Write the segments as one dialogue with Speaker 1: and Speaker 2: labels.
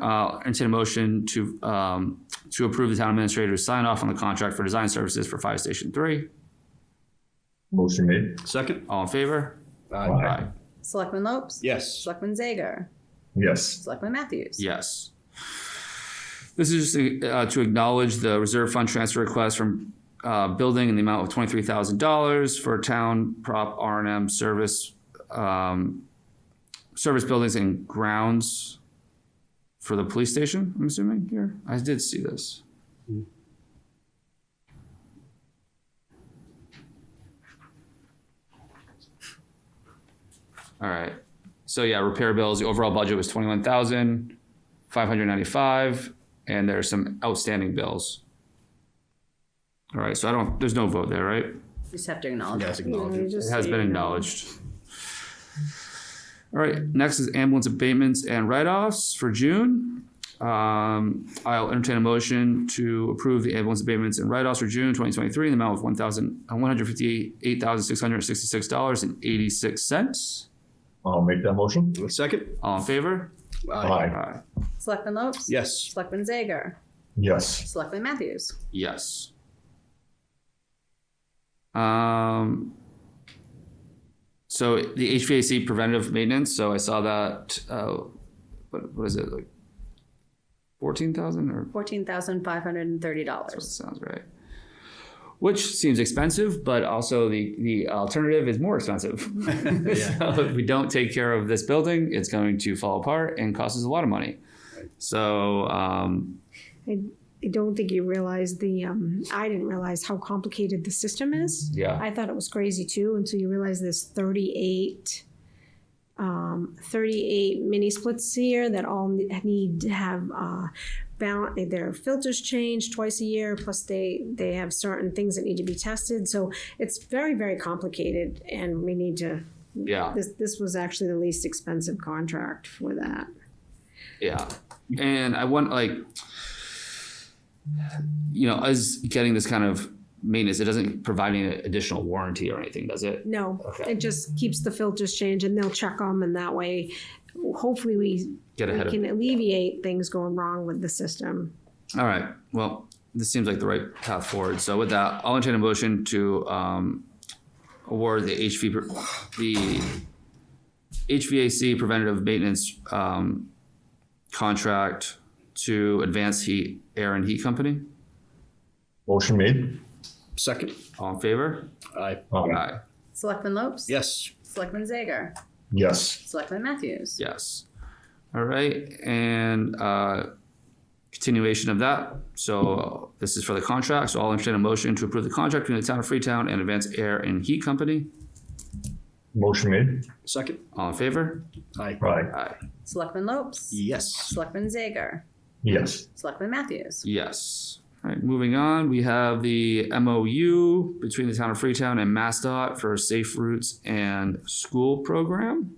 Speaker 1: I'll entertain uh, a motion to, um, to approve the town administrator to sign off on the contract for design services for Fire Station Three.
Speaker 2: Motion made.
Speaker 3: Second?
Speaker 1: All in favor?
Speaker 2: Aye.
Speaker 4: Selectman Lopes?
Speaker 3: Yes.
Speaker 4: Selectman Zager?
Speaker 2: Yes.
Speaker 4: Selectman Matthews?
Speaker 1: Yes. This is just uh, to acknowledge the reserve fund transfer request from uh, building in the amount of twenty-three thousand dollars for town prop R and M service, um, service buildings and grounds for the police station, I'm assuming here. I did see this. All right. So yeah, repair bills, the overall budget was twenty-one thousand, five hundred ninety-five, and there are some outstanding bills. All right, so I don't, there's no vote there, right?
Speaker 4: You Just have to acknowledge.
Speaker 3: Yes, acknowledge it.
Speaker 1: It has been acknowledged. All right, next is ambulance abatements and write-offs for June. Um, I'll entertain a motion to approve the ambulance abatements and write-offs for June twenty twenty-three in the amount of one thousand, one hundred fifty-eight thousand, six hundred sixty-six dollars and eighty-six cents.
Speaker 2: I'll make that motion.
Speaker 3: Second?
Speaker 1: All in favor?
Speaker 2: Aye.
Speaker 1: Aye.
Speaker 4: Selectman Lopes?
Speaker 3: Yes.
Speaker 4: Selectman Zager?
Speaker 2: Yes.
Speaker 4: Selectman Matthews?
Speaker 1: Yes. Um. So the HVAC preventative maintenance, so I saw that, uh, what, what is it, like? Fourteen thousand or,
Speaker 4: Fourteen thousand five hundred and thirty
Speaker 1: that
Speaker 4: dollars.
Speaker 1: sounds right. Which seems expensive, but also the, the alternative is more expensive. So if we don't take care of this building, it's going to fall apart and costs us a lot of money. So, um,
Speaker 5: I, I don't think you realize the, um, I didn't realize how complicated the system is.
Speaker 1: Yeah.
Speaker 5: I thought it was crazy too, until you realize there's thirty-eight, um, thirty-eight mini splits here that all ne- need to have, uh, bal- their filters changed twice a year, plus they, they have certain things that need to be tested, so it's very, very complicated, and we need to,
Speaker 1: yeah.
Speaker 5: this, this was actually the least expensive contract for that.
Speaker 1: Yeah. And I want like you know, us getting this kind of maintenance, it doesn't provide any additional warranty or anything, does it?
Speaker 5: No,
Speaker 1: Okay.
Speaker 5: it just keeps the filters changed and they'll check them and that way, hopefully we
Speaker 1: Get
Speaker 5: we
Speaker 1: ahead of
Speaker 5: can alleviate things going wrong with the system.
Speaker 1: All right. Well, this seems like the right path forward. So with that, I'll entertain a motion to um award the HV pr- the HVAC preventative maintenance um contract to Advanced Heat Air and Heat Company.
Speaker 2: Motion made.
Speaker 3: Second?
Speaker 1: All in favor?
Speaker 3: Aye.
Speaker 2: Aye.
Speaker 1: Aye.
Speaker 4: Selectman Lopes?
Speaker 3: Yes.
Speaker 4: Selectman Zager?
Speaker 2: Yes.
Speaker 4: Selectman Matthews?
Speaker 1: Yes. All right, and uh, continuation of that. So this is for the contract. So I'll entertain a motion to approve the contract between the town of Freetown and Advanced Air and Heat Company.
Speaker 2: Motion made.
Speaker 3: Second?
Speaker 1: All in favor?
Speaker 3: Aye.
Speaker 2: Aye.
Speaker 1: Aye.
Speaker 4: Selectman Lopes?
Speaker 3: Yes.
Speaker 4: Selectman Zager?
Speaker 2: Yes.
Speaker 4: Selectman Matthews?
Speaker 1: Yes. All right, moving on, we have the MOU between the town of Freetown and MassDOT for Safe Routes and School Program.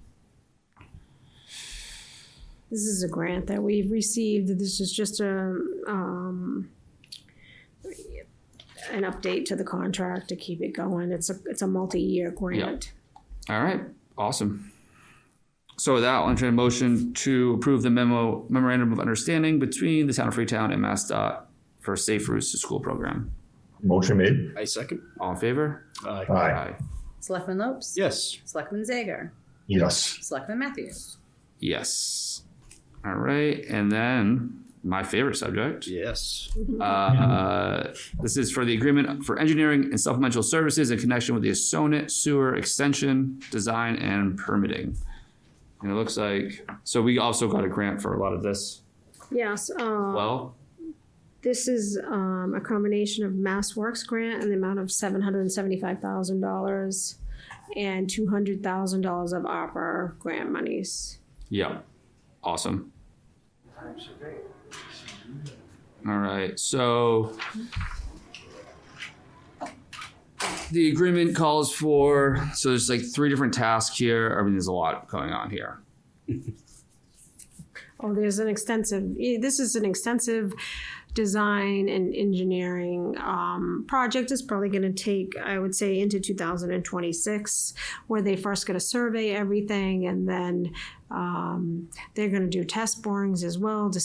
Speaker 5: This is a grant that we've received. This is just a, um, an update to the contract to keep it going. It's a, it's a multi-year grant.
Speaker 1: All right, awesome. So with that, I'll entertain a motion to approve the memo memorandum of understanding between the town of Freetown and MassDOT for safe routes to school program.
Speaker 2: Motion made.
Speaker 3: I second?
Speaker 1: All in favor?
Speaker 3: Aye.
Speaker 2: Aye.
Speaker 4: Selectman Lopes?
Speaker 3: Yes.
Speaker 4: Selectman Zager?
Speaker 2: Yes.
Speaker 4: Selectman Matthews?
Speaker 1: Yes. All right, and then my favorite subject.
Speaker 3: Yes.
Speaker 1: Uh, this is for the agreement for engineering and supplemental services in connection with the Sonnet Sewer Extension Design and Permitting. And it looks like, so we also got a grant for a lot of this.
Speaker 5: Yes, um,
Speaker 1: Well,
Speaker 5: This is um, a combination of Mass Works grant and the amount of seven hundred and seventy-five thousand dollars and two hundred thousand dollars of opera grant monies.
Speaker 1: Yeah. Awesome. All right. So the agreement calls for so there's like three different tasks here. I mean, there's a lot going on here.
Speaker 5: Oh, there's an extensive, eh, this is an extensive design and engineering um, project. It's probably gonna take, I would say, into two thousand and twenty-six, where they first gonna survey everything and then um, they're gonna do test borings as well to